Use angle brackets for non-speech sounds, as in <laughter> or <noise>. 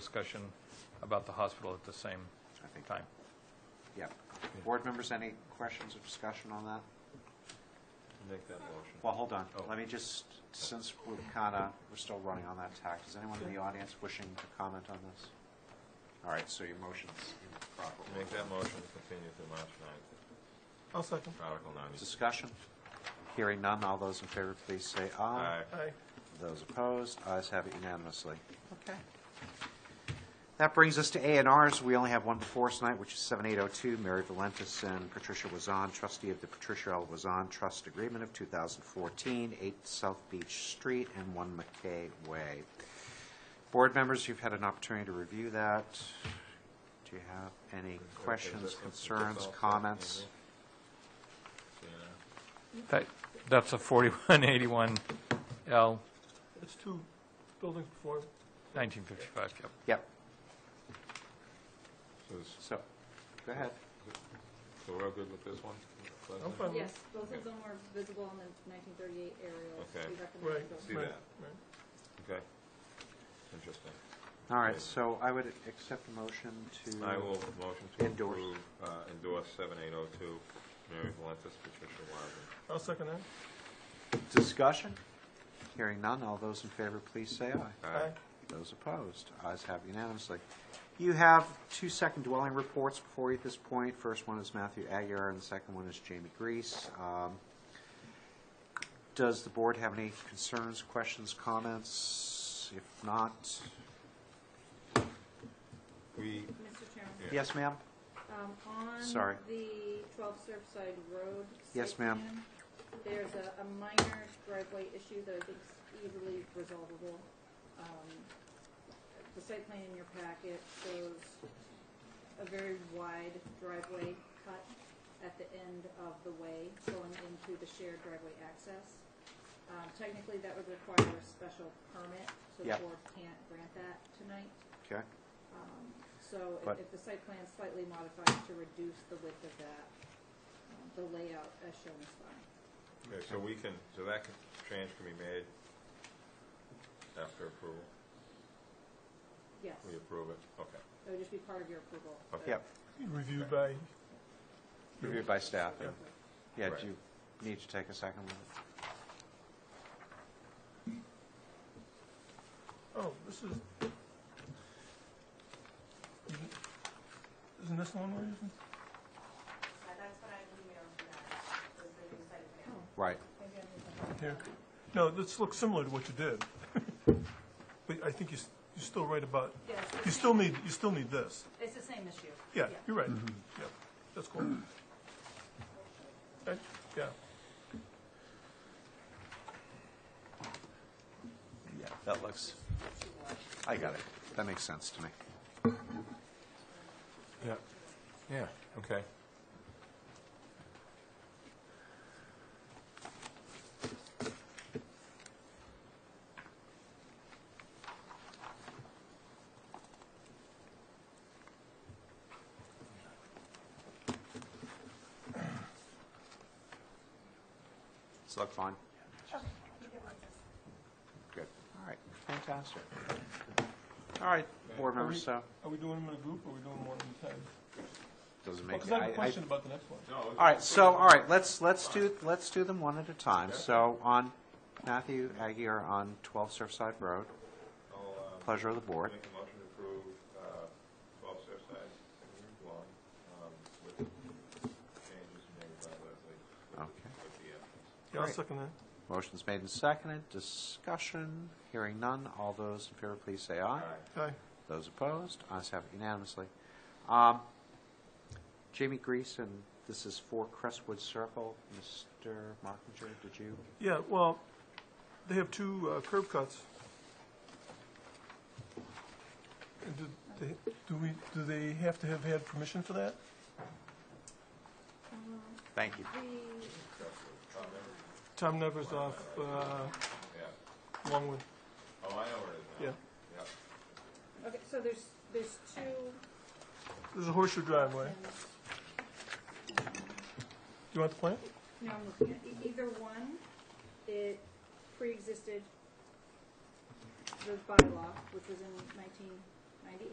discussion about the hospital at the same I think. time. Yeah. Board members, any questions or discussion on that? Make that motion. Well, hold on. Oh. Let me just, since we're kind of, we're still running on that tack, is anyone in the audience wishing to comment on this? All right, so your motion's in proper order. Make that motion to continue to March 9th, I'll second. Article 90. Discussion? Hearing none, all those in favor, please say aye. Aye. Aye. Those opposed, ayes have it unanimously. Okay. That brings us to A and Rs. We only have one before us tonight, which is 7802, Mary Valentis and Patricia Wazan, trustee of the Patricia L. Wazan Trust Agreement of 2014, 8 South Beach Street and 1 McKay Way. Board members, you've had an opportunity to review that. Do you have any questions, concerns, comments? Yeah. That, that's a 4181L, It's two buildings before. 1955, yep. Yep, So is- so, go ahead. so we're all good with this one? Leslie? I'm fine. Yes, both of them were visible in the 1938 aerials. Okay. We recommend Right. those. See Right, that? right. Okay. Interesting. All right, so I would accept a motion to... I will motion to Endorse. approve, uh, endorse 7802, Mary Valentis, Patricia Wilder. I'll second that. Discussion? Hearing none, all those in favor, please say aye. Aye. Those opposed, ayes have unanimously. You have two second dwelling reports before you at this point. First one is Matthew Aguirre, and the second one is Jamie Grease. Um, Does the board have any concerns, questions, comments? If not, We, Mr. Chairman, Yeah. yes, ma'am? um, on Sorry. the 12 Surfside Road. Yes, site ma'am. plan, There's a a minor driveway issue that I think is easily resolvable. Um, The site plan in your packet shows a very wide driveway cut at the end of the way going into the shared driveway access. Um, Technically, that would require a special permit, so the Yep. board can't grant that tonight. Okay. Um, So if- But- if the site plan is slightly modified to reduce the width of that, um, the layout as shown is fine. okay, uh, so we can, so that can- change can be made after approval? Yes, We it approve it? Okay. would just be part of your approval. Okay. Yep, Reviewed by, reviewed by staff. But- Yeah, Right. do you need to take a second? look? oh, this is. Isn't this the one we're using? That's what I emailed you guys, was the new site plan. Oh. Right. Maybe I need to- Here. No, this looks similar to what you did. <laughs> But I think you, s- you're still right about, Yes, it's the you still same- need, you still need this. It's the same issue. Yeah, you're right. Yeah, that's cool. Uh, Yeah, Yeah, that looks. I got it. That makes sense to me. Yeah, yeah, okay. Does that look fine? Good. All right, fantastic. All right, board members, so, are we doing them in a group or are we doing them one at a time? doesn't make. Because I have a I- I- question about the next one. No, All right, so, all right, let's, let's do, let's do them one at a time. So on Matthew Aguirre on 12 Surfside Road, uh, I'll, um, pleasure of the board. Make a motion to approve uh, 12 Surfside Avenue Lawn um, with changes made by Leslie with the- Okay. with the entrance. Yeah, I'll Great. second that. Motion's made and seconded, discussion, hearing none. All those in favor, please say aye. Aye. Those opposed, ayes have it unanimously. Um, Jamie Greason, this is for Crestwood Circle. Mr. Markinger, did you? Yeah, well, they have two uh, curb cuts. And do they, do we, do they have to have had permission for that? Um, Thank you. The Tom Nevers off, uh, Yeah, Longwood, oh, I know where it is now. yeah. Yep. Okay, so there's, there's two, There's a horseshoe driveway. Do and, you want the plan? no, I'm looking at, e- either one, it pre-existed the bylaw, which was in nineteen ninety-eight.